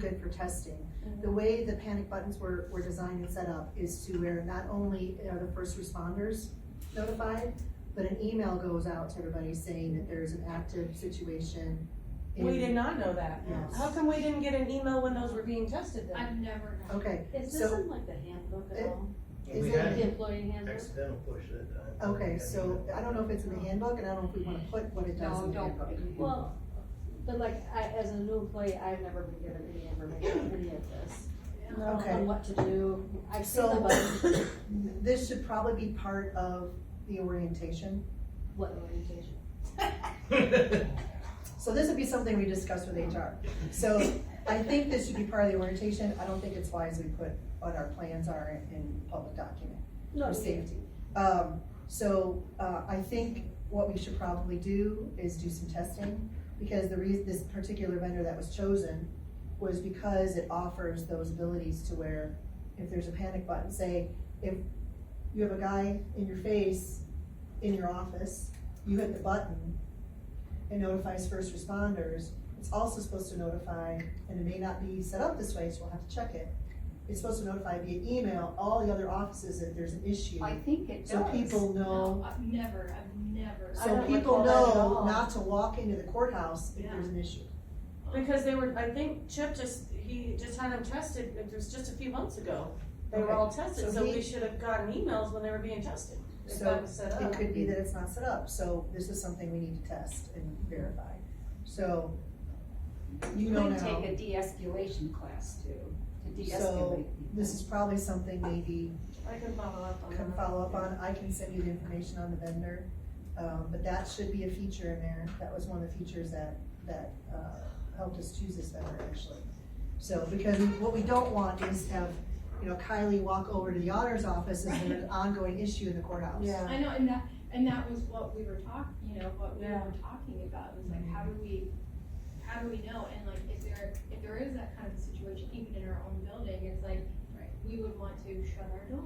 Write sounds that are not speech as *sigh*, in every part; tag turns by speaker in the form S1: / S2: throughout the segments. S1: good for testing. The way the panic buttons were, were designed and set up is to where not only are the first responders notified, but an email goes out to everybody saying that there's an active situation. in-
S2: We did not know that.
S1: Yes.
S2: How come we didn't get an email when those were being tested then?
S3: I've never known.
S1: Okay,
S4: Is this
S1: So-
S4: in like the handbook at
S1: It-
S4: all?
S1: is
S5: We
S1: it-
S5: had
S4: The
S5: an
S4: employee handbook?
S5: accidental push that time.
S1: okay, so I don't know
S5: *laughs*
S1: if it's in the handbook and I don't know if we wanna put what it does
S3: No,
S1: in the
S3: don't.
S1: handbook.
S4: Well, but like, I, as a new employee, I've never been given any information on any of this.
S1: Okay.
S4: On what to do, I've seen
S1: So-
S4: the button,
S1: This should probably be part of the orientation.
S4: what orientation?
S2: *laughs*
S1: So this would be something we discuss with HR. So I think this should be part of the orientation. I don't think it's wise we put what our plans are in- in public document.
S4: No,
S1: for safety. Um, so, uh, I think what we should probably do is do some testing, because the reason, this particular vendor that was chosen was because it offers those abilities to where, if there's a panic button, say, if you have a guy in your face in your office, you hit the button, it notifies first responders, it's also supposed to notify, and it may not be set up this way, so we'll have to check it. It's supposed to notify via email all the other offices that there's an issue.
S3: I think it does.
S1: So people know,
S3: No, I've never, I've never.
S4: I
S1: so
S4: don't
S1: people
S4: recall that at
S1: know
S4: all.
S1: not to walk into the courthouse if
S3: Yeah.
S1: there's an issue.
S2: Because they were, I think Chip just, he just had them tested, it was just a few months ago. They were
S1: Okay.
S2: all tested,
S1: So
S2: so
S1: he-
S2: we should have gotten emails when they were being tested. If
S1: So
S2: that was set
S1: It
S2: up.
S1: could be that it's not set up, so this is something we need to test and verify. So, you know
S6: Could
S1: now,
S6: take a de-escalation class too, to
S1: so
S6: de-escalate.
S1: this is probably something maybe
S2: I can follow up on that.
S1: can follow up on. I can send you the information on the vendor. Um, but that should be a feature in there. That was one of the features that, that, uh, helped us choose this vendor actually. So, because what we don't want is have, you know, Kylie walk over to the auditor's office and there's an ongoing issue in the courthouse.
S2: Yeah.
S3: I know, and that, and that was what we were talking, you know, what we
S2: Yeah.
S3: were talking about, was like, how do we, how do we know? And like, if there, if there is that kind of a situation, even in our own building, it's like, we would want to shut our door.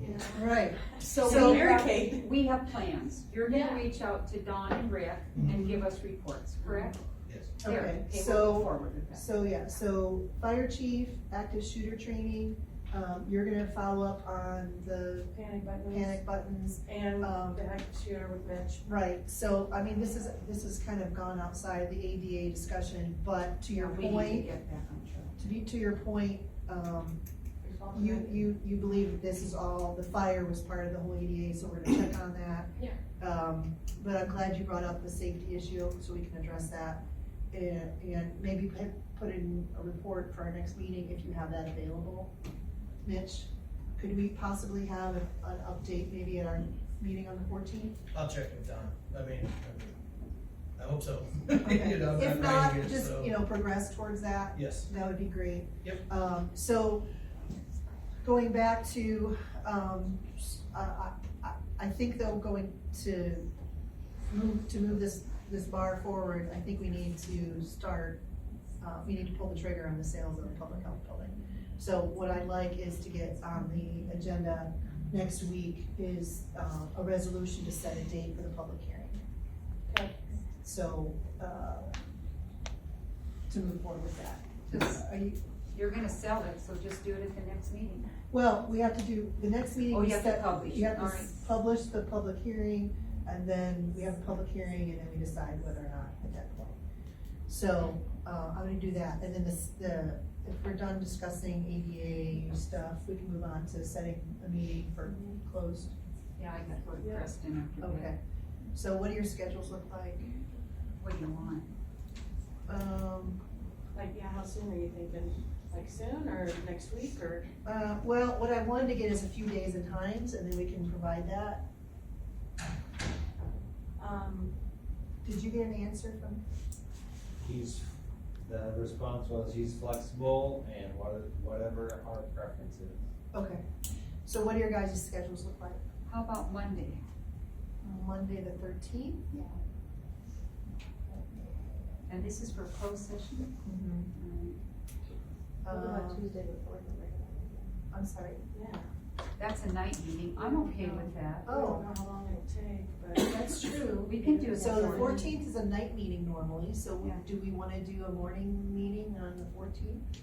S3: you know?
S1: Right, So-
S6: So we
S2: Mary
S6: have, we have plans. You're
S3: Yeah.
S6: gonna reach out to Dawn and Rick and give us reports, correct?
S5: Yes.
S6: There,
S1: Mm-hmm. okay,
S6: okay, we'll move
S1: so,
S6: forward with that.
S1: so yeah, so fire chief, active shooter training, um, you're gonna follow up on the
S2: Panic buttons
S1: panic buttons.
S2: and
S1: Um,
S2: the heck shooter with Mitch.
S1: Right, so, I mean, this is, this has kind of gone outside the ADA discussion, but to your
S6: We need to
S1: point,
S6: get back on track.
S1: to be, to your point, um, you, you, you believe this is all, the fire was part of the whole ADA, so we're gonna check on that.
S3: Yeah.
S1: Um, but I'm glad you brought up the safety issue, so we can address that. And, and maybe put, put in a report for our next meeting if you have that available. Mitch, could we possibly have an, an update maybe at our meeting on the fourteenth?
S5: I'll check with Don, I mean, I mean, I hope so. *laughs* You know, I'm
S1: If not,
S5: writing it,
S1: just,
S5: so-
S1: you know, progress towards that,
S5: Yes,
S1: that would be great.
S5: Yep.
S1: Um, so, going back to, um, I, I, I- I think though, going to move, to move this, this bar forward, I think we need to start, uh, we need to pull the trigger on the sales of the public health building. So what I'd like is to get on the agenda next week is, uh, a resolution to set a date for the public hearing.
S2: Okay.
S1: So, uh, to move forward with that.
S6: Just-
S1: Are you,
S6: You're gonna sell it, so just do it at the next meeting.
S1: well, we have to do, the next meeting.
S6: Oh,
S1: we
S6: you have to
S1: set-
S6: publish,
S1: You have to
S6: all right.
S1: s- publish the public hearing, and then we have a public hearing, and then we decide whether or not at that point. So, uh, I'm gonna do that, and then this, the, if we're done discussing ADA stuff, we can move on to setting a meeting for closed.
S6: Yeah, I got to go to
S2: Yeah.
S6: Preston after that.
S1: Okay, so what do your schedules look like?
S6: What do you want?
S1: Um,
S2: Like, yeah, how soon are you thinking? Like soon or next week or?
S1: Uh, well, what I wanted to get is a few days and times, and then we can provide that.
S2: Um,
S1: Did you get an answer from?
S7: He's, the response was he's flexible and what- whatever our preference is.
S1: Okay, so what do your guys' schedules look like?
S6: How about Monday?
S1: Monday the thirteenth?
S6: And this is for closed session?
S1: Um, uh,
S2: Tuesday before the regular?
S1: I'm sorry,
S2: Yeah.
S6: that's a night meeting, I'm okay with that.
S2: I don't
S1: Oh,
S2: know how long it'll take, but.
S6: *laughs*
S1: that's true.
S6: We can do it.
S1: So the
S6: morning.
S1: fourteenth is a night meeting normally, so we-
S6: Yeah.
S1: do we wanna do a morning meeting on the fourteenth?